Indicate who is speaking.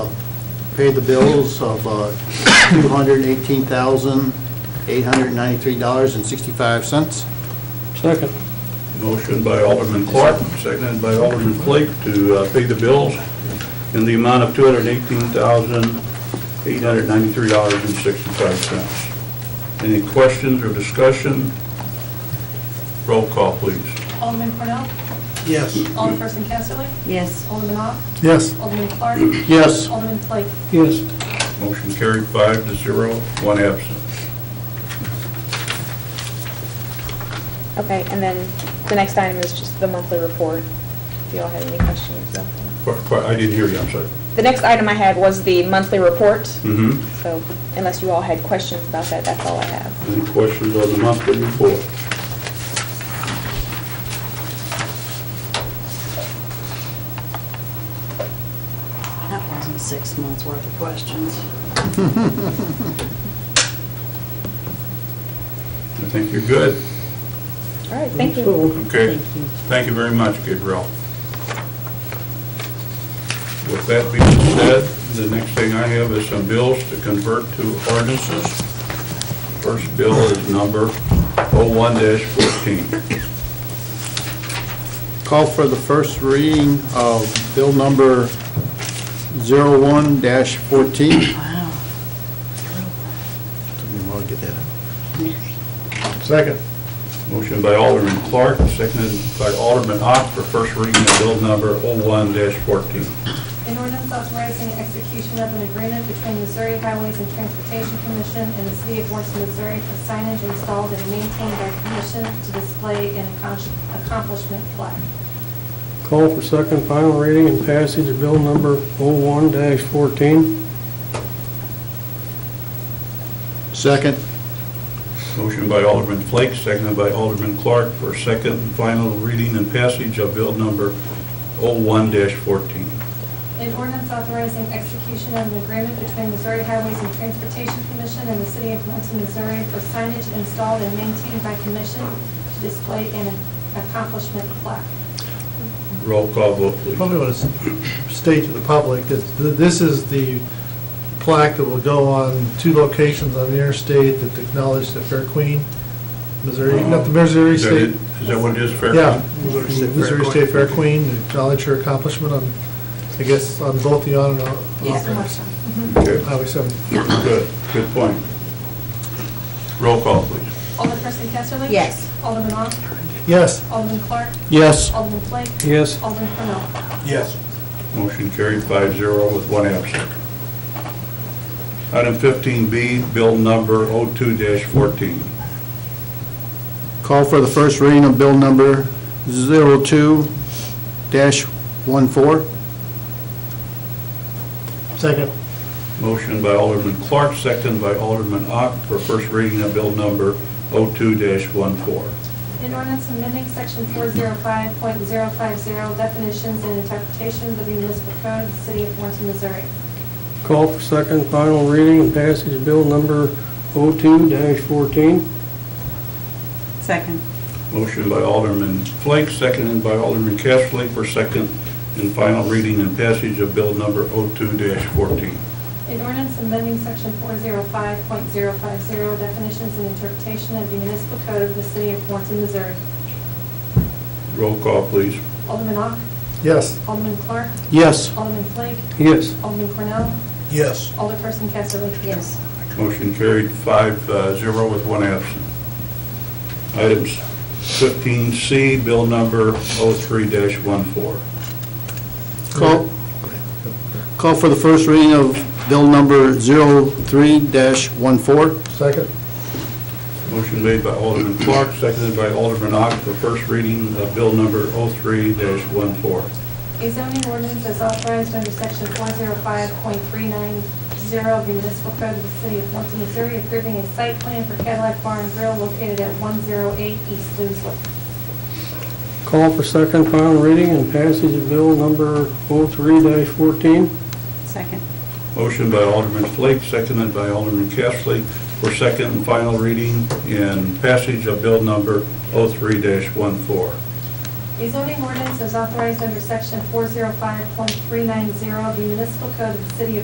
Speaker 1: pay the bills of uh, $218,893.65.
Speaker 2: Second.
Speaker 3: Motion by Alderman Clark, seconded by Alderman Flake to uh, pay the bills in the amount of $218,893.65. Any questions or discussion? Roll call, please.
Speaker 4: Alderman Cornell?
Speaker 1: Yes.
Speaker 4: Alderperson Casterly?
Speaker 5: yes,
Speaker 4: Alderman Ock?
Speaker 1: Yes.
Speaker 4: Alderman Clark?
Speaker 1: Yes.
Speaker 4: Alderman Flake?
Speaker 2: Yes.
Speaker 3: Motion carried five to zero, one absent.
Speaker 6: Okay, and then the next item is just the monthly report, if y'all have any questions. about that.
Speaker 3: Qu- qu- I didn't hear you, I'm sorry.
Speaker 6: The next item I had was the monthly report,
Speaker 3: Mm-hmm.
Speaker 6: so unless you all had questions about that, that's all I have.
Speaker 3: Any questions on the monthly report?
Speaker 5: that wasn't six months worth of questions.
Speaker 3: I think you're good.
Speaker 6: All right, thank you.
Speaker 3: Okay,
Speaker 5: Thank you.
Speaker 3: thank you very much, Gabriel. With that being said, the next thing I have is some bills to convert to ordinances. First bill is number 01-14.
Speaker 1: Call for the first reading of bill number 01-14. Took me
Speaker 5: Wow.
Speaker 1: a while to get that.
Speaker 3: Second. Motion by Alderman Clark, seconded by Alderman Ock for first reading of bill number 01-14.
Speaker 4: An ordinance authorizing execution of an agreement between Missouri Highways and Transportation Commission and the City of Warrenton, Missouri for signage installed and maintained by the commission to display an accomplish- accomplishment plaque.
Speaker 2: Call for second final reading and passage of bill number 01-14.
Speaker 1: Second.
Speaker 3: Motion by Alderman Flake, seconded by Alderman Clark for second and final reading and passage of bill number 01-14.
Speaker 4: An ordinance authorizing execution of an agreement between Missouri Highways and Transportation Commission and the City of Warrenton, Missouri for signage installed and maintained by commission to display an accomplishment plaque.
Speaker 3: Roll call vote, please.
Speaker 7: Probably want to state to the public that th- this is the plaque that will go on two locations on the interstate that acknowledge the Fair Queen, Missouri, not the Missouri
Speaker 3: Uh-huh. Is that it?
Speaker 7: State.
Speaker 3: Is that what it is, Fair?
Speaker 7: Yeah,
Speaker 1: Missouri State Fair
Speaker 7: Missouri
Speaker 1: Queen.
Speaker 7: State Fair Queen, acknowledge her accomplishment on, I guess, on both the on and off-
Speaker 5: Yeah.
Speaker 7: off
Speaker 4: Mr.
Speaker 7: ramps.
Speaker 4: Marshall?
Speaker 3: Okay,
Speaker 7: Highway 7.
Speaker 3: good, good point. Roll call, please.
Speaker 4: Alderperson Casterly?
Speaker 5: Yes.
Speaker 4: Alderman Ock?
Speaker 7: Yes,
Speaker 4: Alderman Clark?
Speaker 1: Yes.
Speaker 4: Alderman Flake?
Speaker 2: Yes.
Speaker 4: Alderman Cornell?
Speaker 3: Motion carried five zero with one absent. Item 15B, bill number 02-14.
Speaker 1: Call for the first reading of bill number 02-14.
Speaker 7: second.
Speaker 3: Motion by Alderman Clark, second by Alderman Ock for first reading of bill number 02-14.
Speaker 4: In ordinance amending section four zero five point zero five zero definitions and interpretations of the municipal code of the city of Warrenton, Missouri.
Speaker 2: Call for second final reading and passage of bill number 02-14.
Speaker 5: Second,
Speaker 3: Motion by Alderman Flake, seconded by Alderman Kessley for second and final reading and passage of bill number 02-14.
Speaker 4: In ordinance amending section four zero five point zero five zero definitions and interpretation of the municipal code of the city of Warrenton, Missouri.
Speaker 3: Roll call, please.
Speaker 4: Alderman Ock?
Speaker 7: Yes.
Speaker 4: Alderman Clark?
Speaker 1: Yes.
Speaker 4: Alderman Flake?
Speaker 2: Yes.
Speaker 4: Alderman Cornell?
Speaker 7: Yes.
Speaker 4: Alderperson Casterly?
Speaker 5: yes,
Speaker 3: Motion carried five uh, zero with one absent. Items 15C, bill number 03-14.
Speaker 1: Call, call for the first reading of bill number 03-14.
Speaker 7: Second.
Speaker 3: Motion made by Alderman Clark, seconded by Alderman Ock for first reading of bill number 03-14.
Speaker 4: A zoning ordinance is authorized under section 405.390 of the municipal code of the city of Warrenton, Missouri, approving a site plan for Cadillac Bar and Grill located at 108 East Louisville.
Speaker 2: Call for second final reading and passage of bill number 03-14.
Speaker 5: second,
Speaker 3: Motion by Alderman Flake, seconded by Alderman Kessley for second and final reading and passage of bill number 03-14.
Speaker 4: A zoning ordinance is authorized under section 405.390 of the municipal code of the city of